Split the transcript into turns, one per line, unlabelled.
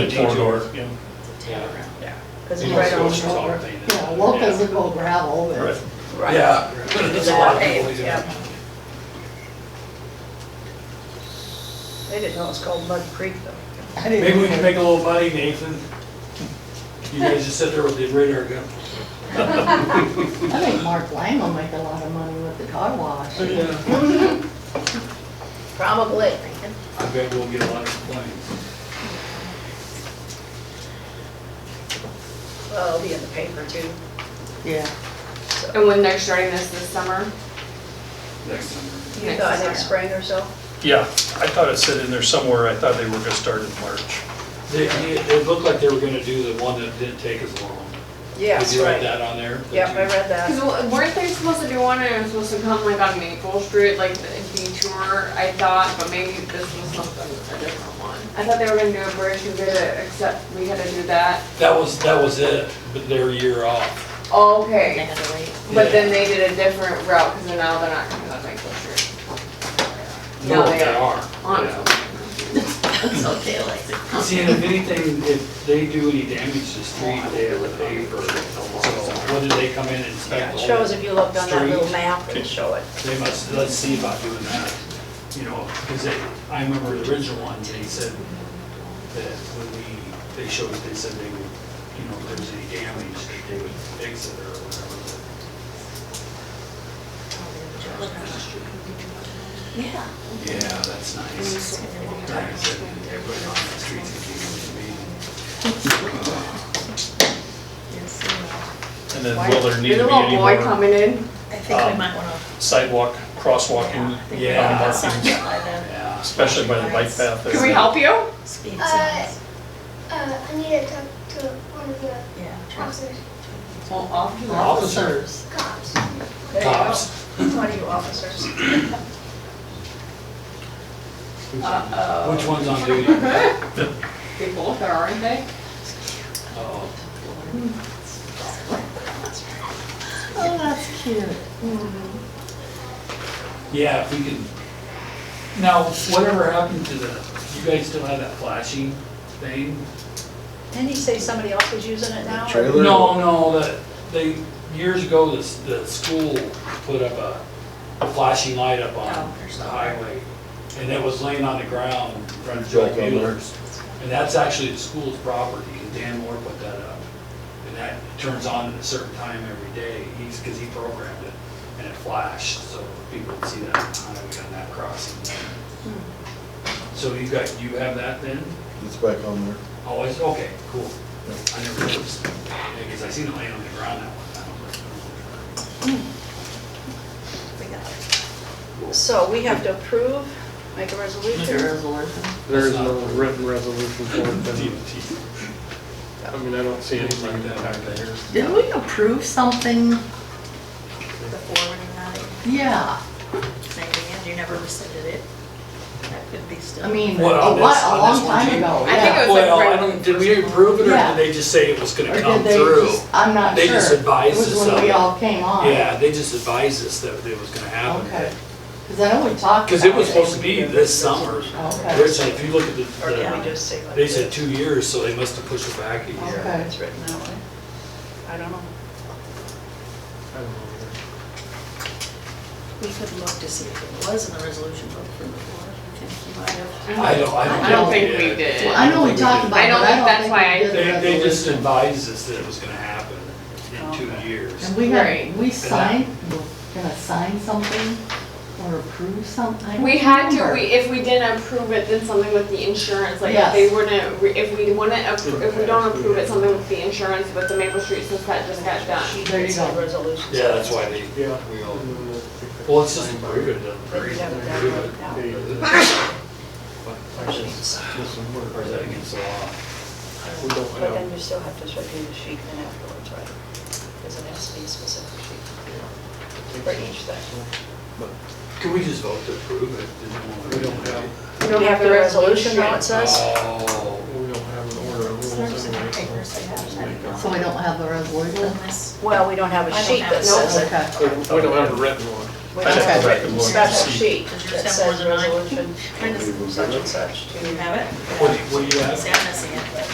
The detour, yeah.
Yeah.
Yeah.
Because
You
it's
know,
right
it's
on
just
local.
already-
Yeah, locals that go gravel,
Right.
but
Right.
Yeah,
There's a lot of people
Paved,
do
yep.
that.
they didn't know it's called Mud Creek though. I didn't
maybe we can
know.
make a little money, Nathan. You guys just sit there with the radar gun.
I think Mark Lang will make a lot of money with the car wash.
I
Probably.
bet we'll get a lot of complaints.
Well, it'll be in the paper too. Yeah.
And when they're starting this this summer?
Next summer.
You
Next
thought
summer.
next spring or so?
Yeah, I thought it said in there somewhere, I thought they were gonna start in March.
They, they- it looked like they were gonna do the one that didn't take as long. Did you write that on there? The
Yep, I
two-
read
Because
that.
weren't they supposed to do one and it was supposed to come like on Maple Street, like the detour, I thought, but maybe this was something, a different one. I thought they were gonna do a bridge and did it, except we had to do that.
That was, that was it, but they're a year off.
Oh, Okay,
Yeah.
but then they did a different route because now they're not coming on Maple Street.
No,
No,
they
they are.
are.
On
Yeah.
It's okay, Lexi.
See, and if anything, if they do any damage to the street, they have to pay for it. So when did they come in and inspect?
It
the
Shows
whole-
if you looked on that little
Street.
map, it'll show it.
They must, let's see about doing that, you know, because they, I remember the original one, they said that when we, they showed, they said they would, you know, if there was any damage, that they would fix it or whatever.
Yeah.
Yeah, that's nice. Like I said, everybody on the streets can be,
And then will there need
There's
to be
a little
any
boy
more
coming in.
I think we might wanna.
sidewalk, crosswalking,
I think we
Um, Yeah.
um,
might wanna
markings,
sign by then.
yeah.
especially by the bike path there?
Can we help you?
Speed
Uh,
signs.
uh, I need to talk to one of the
Yeah.
officers,
Well, off you go.
Officers.
cops.
There you
Cops.
go. Plenty of officers.
Uh-oh.
Which one's on duty? Uh-oh.
They both are, aren't they?
Oh, that's cute.
Yeah, if we can. Now, whatever happened to the, you guys still have that flashing thing?
Didn't he say somebody else was using it now?
Trailer?
No, no, that, they, years ago, the, s- the school put up a a flashing light up on the highway. And it was laying on the ground in front of Joe
Joe Miller.
Mueller's. And that's actually the school's property, and Dan Moore put that up. And that turns on at a certain time every day, he's, because he programmed it, and it flashed, so people would see that on the highway on that crossing. So you got, you have that then?
It's back on there.
Oh, it's, okay, cool. I never noticed, because I seen it laying on the ground that one time.
We got it.
So we have to approve, make a resolution.
There is no written resolution for it,
But
then,
you-
I mean, I don't see anything back there.
Didn't we approve something?
The forwarding that,
Yeah,
saving it, you never rescinded it. That could be still.
I mean, a
What, on
lot,
this-
a
on
long
this one,
time
Jean?
ago,
I think
yeah.
it was like.
Well, I
right-
don't, did we approve it, or
Yeah.
did they just say it was
Or
gonna
did
come
they
through?
just- I'm not sure.
They just advised
It
us
was when
of
we
it.
all came on.
Yeah, they just advised us that it was gonna
Okay,
happen.
because I know we talked.
Because it
about
was supposed to be this summer.
Okay.
Originally, if you look at the-
Or can we
the,
just say like?
they said two years, so they must have pushed it back a year.
Okay.
It's written that way.
I don't know.
I don't know.
We could look to see if it was in the resolution book from before. I think you might have.
I don't, I don't.
I don't think we did.
Well, I know we talked about
I
it,
don't
but
think that's
I don't
why I-
think we
They,
did the
they just
resolution.
advised us that it was gonna happen in two years.
And we had,
Right.
we signed, we're gonna sign something or approve something, I don't
We had to,
remember.
we, if we didn't approve it, then something with the insurance, like if
Yes.
they wouldn't, re- if we wouldn't, appro- if we don't approve it, something with the insurance, but the Maple Street since that just got done.
There you go.
Yeah, that's why they,
Yeah.
we all,
And then
well, let's just approve it, doesn't matter.
they- they- I guess this would work.
Or is that against the law?
We don't
But then
have,
you still have to sort through the sheet then afterwards, right? Because it has to be a specific sheet for each thing.
Can we just vote to approve it?
we don't have,
We
We have the resolution, now it says?
Oh,
we don't have an order of rules anyway.
Papers they have, I don't know.
So we don't have the resolution?
Unless-
Well, we don't have a
I don't
sheet
have
that
it.
says it.
Okay.
We we don't have a written one.
We
I'd
don't
have
have
to
a
back and
written
look and
special
see.
sheet
Does yours
that
have
says
more than mine?
resolution
Mine doesn't-
such and such to
Do you have it?
what do you- what do you have?
See, I'm missing it.